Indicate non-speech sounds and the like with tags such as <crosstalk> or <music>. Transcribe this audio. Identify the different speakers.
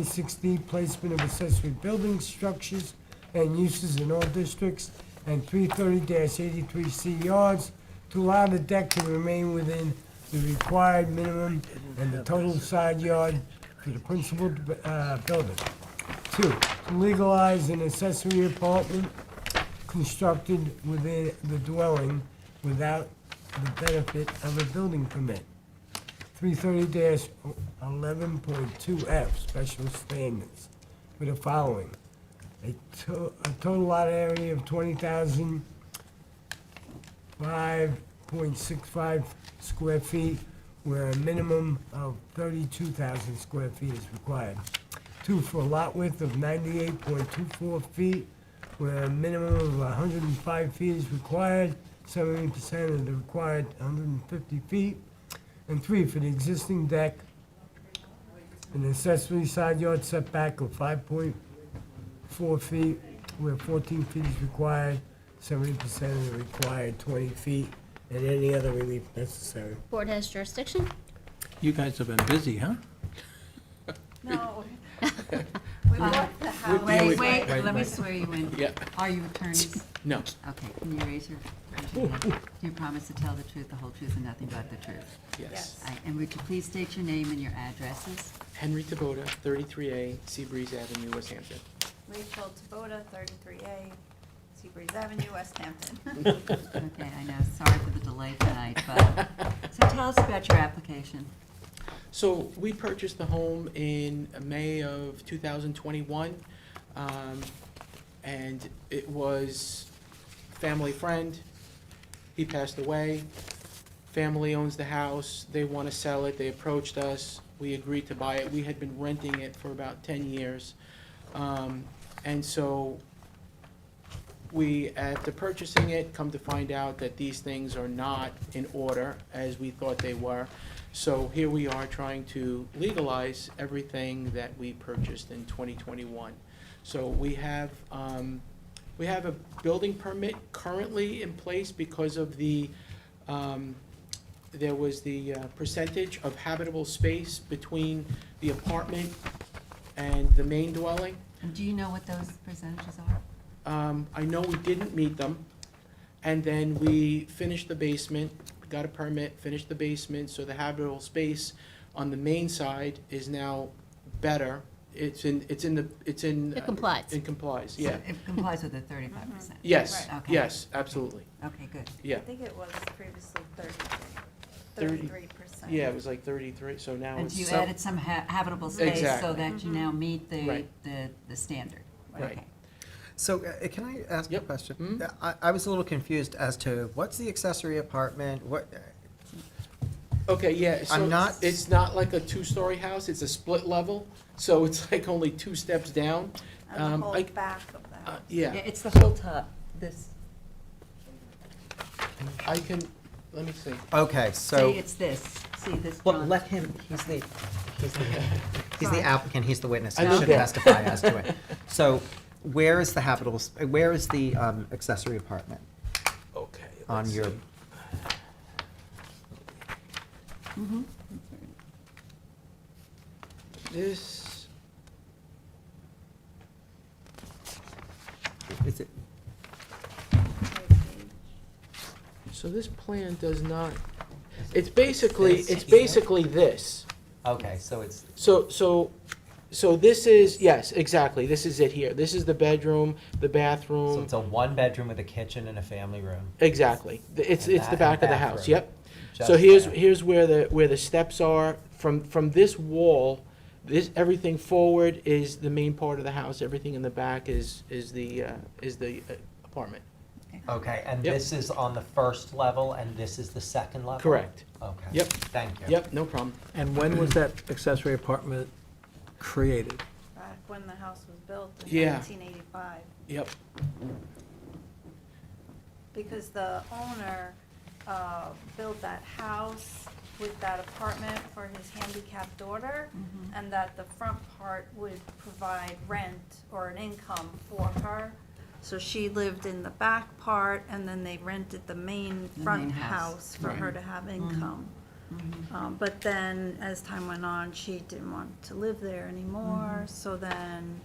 Speaker 1: 76D, placement of accessory buildings, structures, and uses in all districts, and 330-83C yards, to allow the deck to remain within the required minimum and the total side yard for the principal uh, building. Two, to legalize an accessory apartment constructed within the dwelling without the benefit of a building permit. 330-11.2F, special standards, for the following. A to- a total lot area of 20,005.65 square feet, where a minimum of 32,000 square feet is required. Two, for a lot width of 98.24 feet, where a minimum of 105 feet is required, 70% of the required 150 feet. And three, for the existing deck, an accessory side yard setback of five point four feet, where fourteen feet is required, seventy percent of the required twenty feet, and any other relief necessary.
Speaker 2: Board has jurisdiction?
Speaker 3: You guys have been busy, huh?
Speaker 4: No. We walked the house.
Speaker 3: Uh, Wait,
Speaker 5: Wait,
Speaker 3: wait,
Speaker 5: wait,
Speaker 3: wait,
Speaker 5: let me
Speaker 3: wait.
Speaker 5: swear you in.
Speaker 3: Yeah.
Speaker 5: Are you attorneys?
Speaker 3: No.
Speaker 5: Okay, can you raise your, raise your hand? Do you promise to tell the truth, the whole truth, and nothing but the truth?
Speaker 4: Yes.
Speaker 5: Aye, And would you please state your name and your addresses?
Speaker 3: Henry Tabota, 33A, Seabreeze Avenue, West Hampton.
Speaker 4: Rachel Taboda, 33A, Seabreeze Avenue, West Hampton.
Speaker 5: <laughs>
Speaker 4: <laughs>
Speaker 5: Okay, I know, sorry for the delay tonight, but, so tell us about your application.
Speaker 3: So we purchased the home in May of 2021, um, and it was family friend. He passed away. Family owns the house. They want to sell it. They approached us. We agreed to buy it. We had been renting it for about 10 years. Um, And so we, after purchasing it, come to find out that these things are not in order as we thought they were. So here we are trying to legalize everything that we purchased in 2021. So we have, um, we have a building permit currently in place because of the, um, there was the uh, percentage of habitable space between the apartment and the main dwelling.
Speaker 5: And do you know what those percentages are?
Speaker 3: Um, I know we didn't meet them, and then we finished the basement, got a permit, finished the basement, so the habitable space on the main side is now better. It's in, it's in the, it's in.
Speaker 2: It complies.
Speaker 3: It complies, yeah.
Speaker 5: So It complies with the thirty-five percent?
Speaker 3: Yes,
Speaker 5: Right. Okay.
Speaker 3: yes, absolutely,
Speaker 5: Okay, good.
Speaker 3: yeah.
Speaker 4: I think it was previously 33,
Speaker 3: Thirty-
Speaker 4: 33%.
Speaker 3: Yeah, it was like thirty-three, so now
Speaker 5: And
Speaker 3: it's.
Speaker 5: so you
Speaker 3: some-
Speaker 5: added some ha- habitable space so
Speaker 3: Exactly.
Speaker 5: that you now meet the,
Speaker 3: Right.
Speaker 5: the, the standard?
Speaker 3: Right.
Speaker 5: Okay.
Speaker 6: So, uh, can I ask a
Speaker 3: Yep.
Speaker 6: question?
Speaker 3: Mhm.
Speaker 6: Uh, I, I was a little confused as to what's the accessory apartment, what,
Speaker 3: Okay, yeah, so
Speaker 6: I'm not-
Speaker 3: it's not like a two-story house, it's a split level, so it's <laughs> like only two steps down.
Speaker 4: On
Speaker 3: Um,
Speaker 4: the whole
Speaker 3: I-
Speaker 4: back of the
Speaker 3: Uh,
Speaker 4: house.
Speaker 5: Yeah,
Speaker 3: yeah,
Speaker 5: it's the whole top, this,
Speaker 3: I can, let me see.
Speaker 6: uh, okay,
Speaker 5: see,
Speaker 6: so,
Speaker 5: it's this, see this
Speaker 6: well,
Speaker 5: drawing?
Speaker 6: let him, he's the, he's the, he's the applicant, he's the witness,
Speaker 3: I
Speaker 6: he
Speaker 3: know
Speaker 6: should
Speaker 3: that.
Speaker 6: testify as to <laughs> it. So, where is the habitable, s- uh, where is the um, accessory apartment
Speaker 3: Okay.
Speaker 6: on
Speaker 3: let's
Speaker 6: your,
Speaker 3: see.
Speaker 5: Mhm.
Speaker 3: This,
Speaker 6: is it,
Speaker 3: uh, so this plan does not, it's basically, it's basically this.
Speaker 6: okay, so it's,
Speaker 3: So, so, so this is, yes, exactly, this is it here. This is the bedroom, the
Speaker 6: so
Speaker 3: bathroom,
Speaker 6: it's a one-bedroom with a kitchen and a family room?
Speaker 3: exactly. It's,
Speaker 6: And
Speaker 3: it's the
Speaker 6: that and
Speaker 3: back of the house,
Speaker 6: bathroom.
Speaker 3: yep. So
Speaker 6: just
Speaker 3: here's,
Speaker 6: there.
Speaker 3: here's where the, where the steps are. From, from this wall, this, everything forward is the main part of the house. Everything in the back is, is the, uh, is the uh, apartment.
Speaker 6: Okay, and
Speaker 3: Yep.
Speaker 6: this is on the first level, and this is the second level?
Speaker 3: Correct.
Speaker 6: Okay.
Speaker 3: Yep.
Speaker 6: Thank you.
Speaker 3: Yep, no problem.
Speaker 7: And when was that accessory apartment created?
Speaker 4: Back when the house was built in
Speaker 3: Yeah.
Speaker 4: 1985.
Speaker 3: Yep.
Speaker 4: Because the owner uh, built that house with that apartment for his handicapped daughter,
Speaker 5: Mm-hmm.
Speaker 4: and that the front part would provide rent or an income for her. So she lived in the back part, and then they rented the main
Speaker 5: The main
Speaker 4: front
Speaker 5: house. Mm-hmm.
Speaker 4: house for her to have income. Um,
Speaker 5: Mm-hmm.
Speaker 4: But then, as time went on, she didn't want to live there anymore, so then